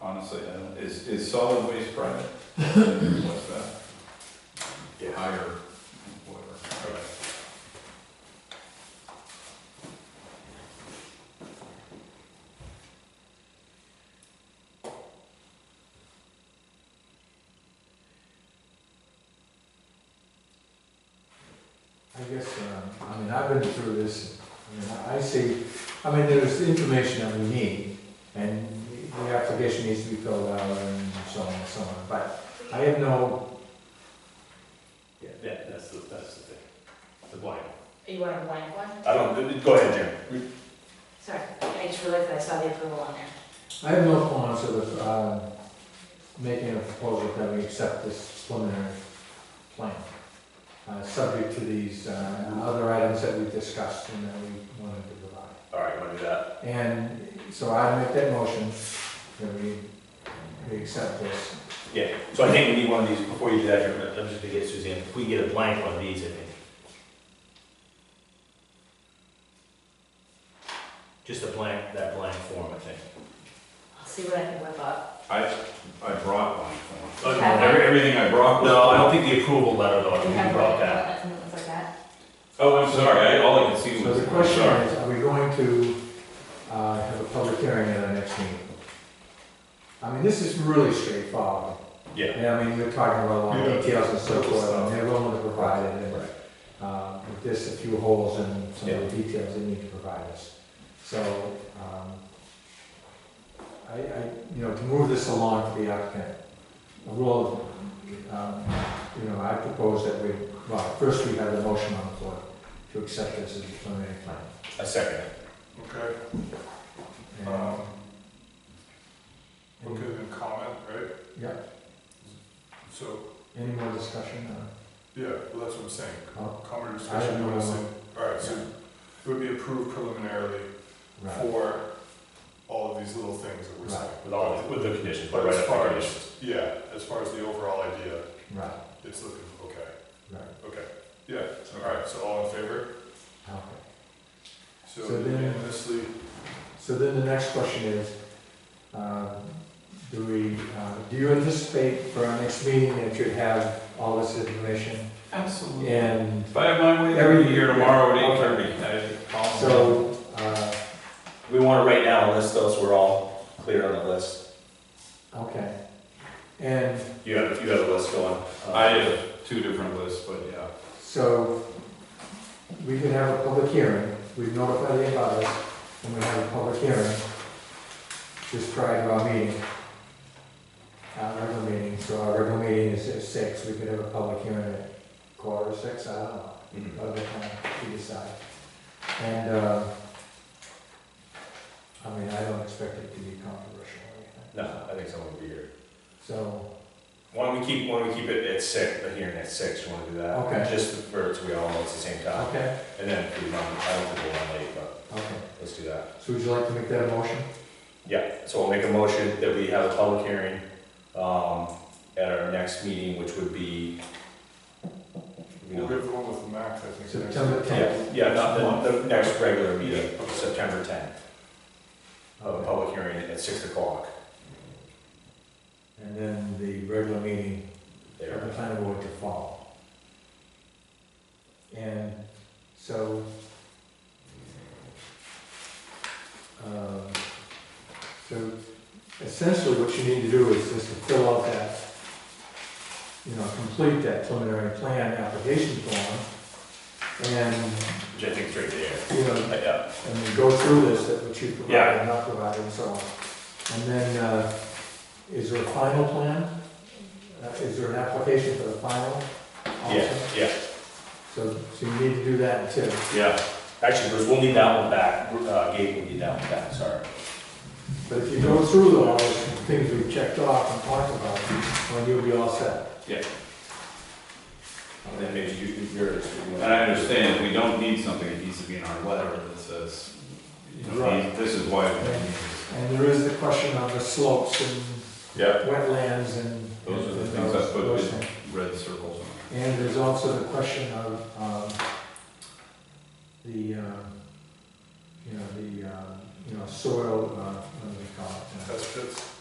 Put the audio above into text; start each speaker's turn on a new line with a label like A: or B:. A: honestly, I don't, is, is solid waste private? What's that?
B: Yeah.
A: Higher, whatever. Okay.
C: I guess, um, I mean, I've been through this, I mean, I- I see, I mean, there's information that we need, and the application needs to be filled out and so on and so on, but I have no,
B: Yeah, that- that's the, that's the thing, the blank.
D: You want a blank one?
B: I don't, go ahead, Jim.
D: Sorry, I just realized I saw the approval on there.
C: I have no qualms with, um, making a proposal that we accept this preliminary plan, uh, subject to these, uh, other items that we discussed and that we wanted to provide.
B: All right, want to do that?
C: And so I make that motion that we, we accept this.
B: Yeah, so I think we need one of these, before you do that, Jim, I'm just gonna get Suzanne, if we get a blank one of these, I think. Just a blank, that blank form, I think.
D: I'll see what I can whip up.
A: I, I brought one.
B: Okay.
A: Every- Everything I brought was.
B: No, I don't think the approval letter though, I
D: Do you
B: think we
D: have
B: brought
D: one?
B: that.
D: Something that looks like that?
A: Oh, I'm sorry, I, all I could see
C: So
A: was.
C: the question
A: sorry.
C: is, are we going to uh, have a public hearing at our next meeting? I mean, this is really straightforward.
B: Yeah.
C: And I mean, you're talking about a lot
A: Yeah.
C: of details and so forth, and they're willing to provide it, and
B: Right.
C: uh, with this, a few holes and some of the details they need to provide us. So, um, I, I, you know, to move this along for the applicant, a rule, of, um, you know, I propose that we, well, first we have the motion on the floor to accept this as a preliminary plan.
B: A second. it.
E: Okay,
C: And-
E: um,
C: and-
E: okay, then comment, right?
C: Yeah,
E: So,
C: any more discussion? Uh,
E: yeah, well, that's what I'm saying,
C: Oh.
E: comment or
C: I don't
E: discussion,
C: know.
E: noticing, alright, so
C: Yeah.
E: it would be approved preliminarily
C: Right,
E: for all of these little things that we're
C: Right.
E: saying.
B: With all, with the conditions, but
E: But
B: right
E: as
B: up
E: far
B: the
E: as,
B: conditions.
E: yeah, as far as the overall idea,
C: right,
E: it's looking, okay,
C: right,
E: okay, yeah, alright, so all in favor?
C: okay.
E: So
C: So then-
E: unanimously,
C: So then the next question is, um, do we, uh, do you anticipate for our next meeting that you'd have all this information?
A: Absolutely.
C: And
A: If I have my way, every year tomorrow at eight thirty, I'd call. them.
C: so, uh,
B: We want to write down a list though, so we're all clear on the list.
C: okay. And
B: You have, you have a list going. um,
A: I have two different lists, but yeah.
C: so we can have a public hearing, we've notified the abutters, and we have a public hearing just prior to our meeting. Our regular meeting, so our regular meeting is at six, we could have a public hearing at quarter to six, I don't know.
B: Mhm.
C: other time to decide. And, uh, I mean, I don't expect it to be controversial or anything.
B: No, I think someone would be here.
C: So,
B: Why don't we keep, why don't we keep it at six, the hearing at six, you wanna do that?
C: Okay.
B: Just for, so we all know it's the same time,
C: okay,
B: and then if we run, I don't think we'll run late, but
C: okay.
B: let's do that.
C: So would you like to make that a motion?
B: Yeah, so we'll make a motion that we have a public hearing, um, at our next meeting, which would be. you
E: we'll
B: know,
E: give the one with the max, I think. next.
C: September
B: Yeah,
C: 10th.
B: yeah, not the, the next regular meeting, September tenth, of a public hearing at six o'clock
C: And then the regular meeting of the
B: there.
C: planning board to follow. And so, um, so essentially what you need to do is just to fill out that, you know, complete that preliminary plan application form, and,
B: Which I think is right there.
C: you know,
B: But, Yeah,
C: and then go through this, that what you provided
B: Yeah.
C: and not provided and so on. And then, uh, is there a final plan? Uh, Is there an application for the final? also?
B: yeah, yeah.
C: So, so you need to do that too.
B: Yeah, actually, Bruce, we'll need that one back, uh, Gabe will need that one back, sorry.
C: But if you go through all those things we've checked off and talked about, then you'll be all set.
A: Yeah.
B: And then maybe you, yours. if you want.
A: And I understand, if we don't need something, it needs to be in our letter that says, you know,
C: Right.
A: this is why. we need this.
C: And there is the question of the slopes and
A: Yeah,
C: wetlands and.
A: those are the
C: and
A: things I put
C: those
A: with
C: things.
A: red circles on.
C: And there's also the question of, um, the, um, you know, the, um, you know, soil, uh, what do they call it? uh,
E: Test pits,